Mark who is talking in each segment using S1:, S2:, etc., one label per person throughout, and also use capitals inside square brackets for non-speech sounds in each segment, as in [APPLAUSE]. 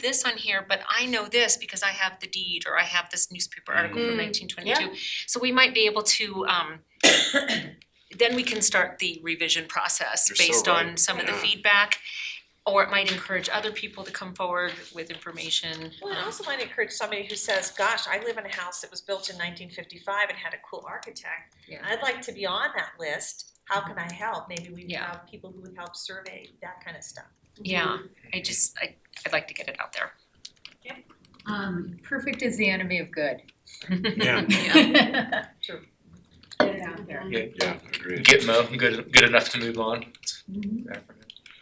S1: this on here, but I know this because I have the deed or I have this newspaper article
S2: Mm-hmm.
S1: from
S3: Mm,
S1: nineteen twenty-two. So we might be able to um [COUGHS] then we can start the revision process
S2: You're so
S1: based on
S2: right,
S1: some of the
S2: yeah.
S1: feedback. Or it might encourage other people to come forward with information.
S3: Well, it
S1: um,
S3: also might encourage somebody who says, gosh, I live in a house that was built in nineteen fifty-five and had a cool architect.
S1: Yeah.
S3: I'd like to be on that list, how can I help? Maybe we
S1: Yeah.
S3: have people who would help survey, that kind of stuff.
S1: Yeah, I just, I I'd like to get it out there.
S4: Um, perfect is the enemy of good.
S1: [LAUGHS]
S2: Yeah,
S3: True.
S4: Get it out there.
S2: yeah, agreed.
S5: Gitmo, good, good enough to move on. Mm-hmm.
S4: Mhm.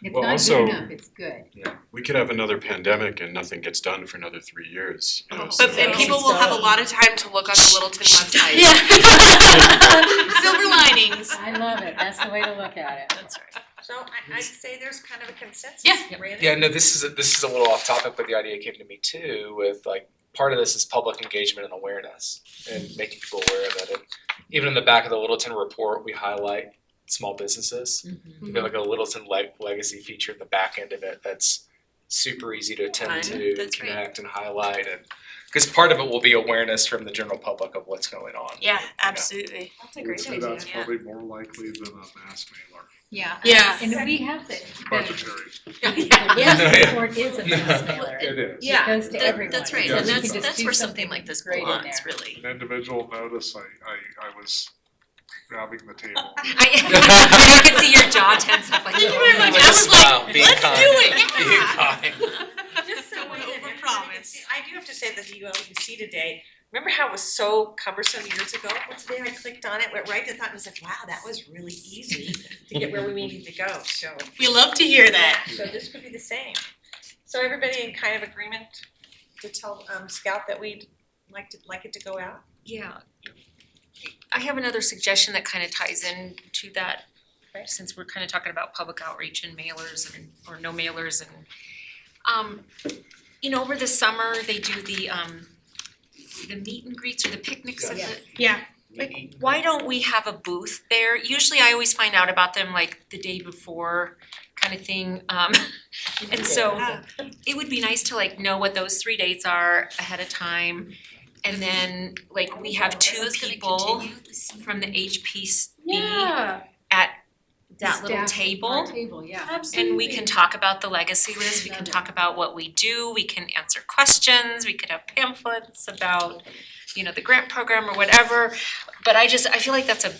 S4: It's
S2: Well,
S4: not
S2: also-
S4: good enough, it's good.
S2: We could have another pandemic and nothing gets done for another three years. you know, so
S6: But then
S2: that's-
S6: people will have a lot of time to look on the [LAUGHS] Littleton website.
S4: [LAUGHS]
S6: Silver linings.
S4: I love it, that's the way to look at it. [LAUGHS]
S6: That's right.
S3: So I I'd say there's kind of a consensus,
S6: Yeah.
S3: Randy?
S5: Yeah, no, this is, a- this is a little off topic, but the idea came to me too, with like, part of this is public engagement and awareness and making people aware of it. And Even in the back of the Littleton report, we highlight small businesses.
S6: Mm-hmm.
S5: We have like a Littleton leg- legacy feature in the back end of it that's super easy to attend
S6: Fun,
S5: to,
S6: that's right.
S5: connect and highlight and, cause part of it will be awareness from the general public of what's going on.
S6: Yeah,
S5: You know?
S6: absolutely.
S3: That's
S7: I would say that's
S6: yeah.
S7: probably more likely than a mass mailer,
S4: Yeah.
S6: Yeah.
S4: And we have the, the,
S7: budgetary.
S4: the
S5: Yeah.
S4: report is a mass mailer, it
S7: It is.
S6: Yeah,
S4: goes to everyone.
S6: that's right,
S4: So
S7: and
S4: we can
S7: that's-
S4: just
S6: that's
S4: do
S6: where something like this
S4: great in
S6: belongs,
S4: there.
S6: really.
S7: An individual notice, I, I, I was grabbing the
S4: [LAUGHS]
S7: table.
S1: I I [LAUGHS] could see your jaw tense up like.
S6: Thank you
S1: "Oh,
S6: very much.
S1: no."
S6: I was like,
S5: Smile, be
S6: "Let's
S5: kind,
S6: do
S5: [LAUGHS]
S6: it."
S5: be
S6: Yeah.
S5: kind.
S3: Just so
S6: Don't
S3: we didn't have to
S6: overpromise.
S3: see- I do have to say that the ULUC today, remember how it was so cumbersome years ago? Well, today I clicked on it, went right to that and was like, wow, that was really easy to get where we needed to go, so.
S6: We love to hear that.
S3: So this could be the same. So everybody in kind of agreement to tell um Scout that we'd like to, like it to go out?
S1: Yeah. I have another suggestion that kind of ties in to that,
S3: Okay.
S1: since we're kind of talking about public outreach and mailers and, or no mailers and, um, you know, over the summer, they do the, um, the meet and greets or the picnics of the, Like, why don't we have a booth there? Usually I always find out about them like the day before kind of thing. Um, and
S8: Oh,
S1: so it would be nice to like know what those three dates are ahead of time. And then like we have two people from the HPC
S4: Yeah.
S1: at that little
S4: Staff
S1: table.
S4: our table, yeah.
S1: And we can talk about the legacy list, we can talk about what we do, we can answer questions, we could have pamphlets about, you know, the grant program or whatever. But I just, I feel like that's a,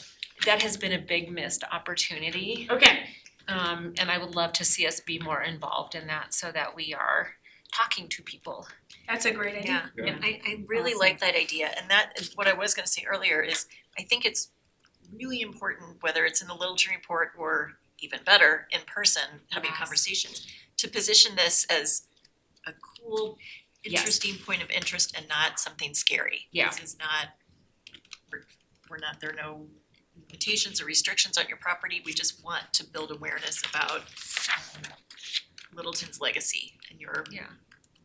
S1: that has been a big missed opportunity.
S6: Okay.
S1: Um, and I would love to see us be more involved in that so that we are talking to people.
S6: That's a great
S8: Yeah,
S7: Yeah.
S8: and I I really
S4: Awesome.
S8: like that idea, and that is what I was gonna say earlier is, I think it's really important, whether it's in the Littleton report or even better, in person, having
S1: Yes.
S8: conversations, to position this as a cool,
S1: Yes.
S8: interesting point of interest and not something scary.
S1: Yeah.
S8: This is not, we're we're not, there are no limitations or restrictions on your property, we just want to build awareness about um, Littleton's legacy and your
S1: Yeah.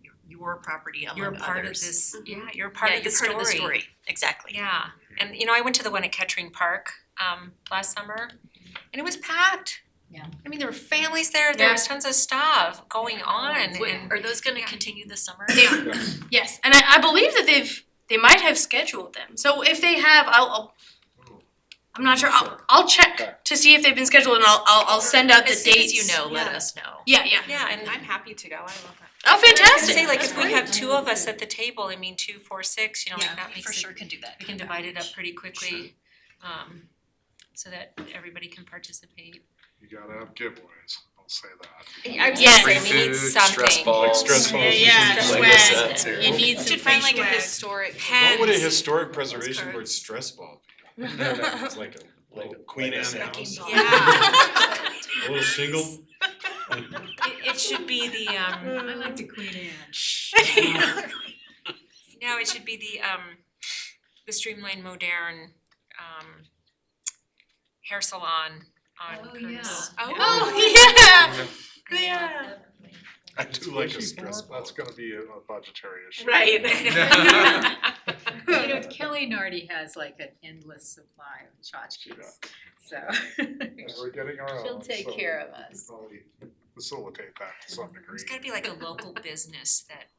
S8: your- your property among
S1: You're a
S8: others. Mm-hmm.
S1: part of this, yeah, you're a part of the story.
S8: Yeah, you're part of the story, exactly.
S1: Yeah, and you know, I went to the one at Kettering Park um last summer and it was packed.
S4: Yeah.
S1: I mean, there were families there, there was tons of stuff going on and
S8: Wait, Are those gonna
S1: Yeah.
S8: continue this summer?
S6: They are. Yes, and I, I believe that they've they might have scheduled them. So if they have, I'll, I'll I'm not sure. I'll, I'll check to see if they've been scheduled, and I'll I'll, I'll send out the
S8: As soon
S6: dates.
S8: as you know, let
S6: yeah.
S8: us know.
S6: Yeah, yeah.
S1: Yeah, and
S8: I'm
S1: happy.
S6: Oh,
S1: I
S6: fantastic!
S1: say, like,
S6: That's
S1: if we
S6: great.
S1: have two of us at the table, I mean, two, four, six, you know, like that
S8: for
S1: makes
S8: sure
S1: it,
S8: can do that.
S1: we can divide it up pretty quickly. Um so that everybody can participate.
S7: You gotta have giveaways, I'll say [LAUGHS] that.
S1: I was
S6: Yes.
S1: just saying, we
S5: Free
S1: need
S5: food,
S1: something.
S5: stress
S1: [LAUGHS]
S5: balls.
S2: Like stress balls.
S6: Yeah,
S5: Lego
S6: swag.
S5: sets or-
S6: You need some
S8: Should find
S6: free
S8: like a
S6: swag. [LAUGHS]
S8: historic.
S2: What would a
S1: Pens.
S2: historic preservation word
S8: cards.
S2: stress ball be?
S5: No, no, it's like a
S2: Like
S5: like
S2: a Queen Anne house?
S8: ball. [LAUGHS]
S1: Yeah.
S2: A little shingle?
S1: It it should be the um [LAUGHS]
S4: I like the Queen Anne.
S1: No, it should be the um the streamlined modern um hair salon on
S4: Oh,
S1: Curtis.
S4: [LAUGHS] yeah.
S6: Oh yeah.
S1: [LAUGHS]
S6: Yeah.
S2: [LAUGHS] I do like a
S7: Especially
S2: stress
S7: for-
S2: ball.
S7: That's gonna be a a budgetary issue.
S1: [LAUGHS]
S4: You know, Kelly Nardi has like an endless supply of tchotchkes, so
S7: And we're getting our own,
S4: she'll take
S7: Oh, so
S4: care of us.
S7: probably facilitate that to some degree.
S1: It's gotta be like a local business that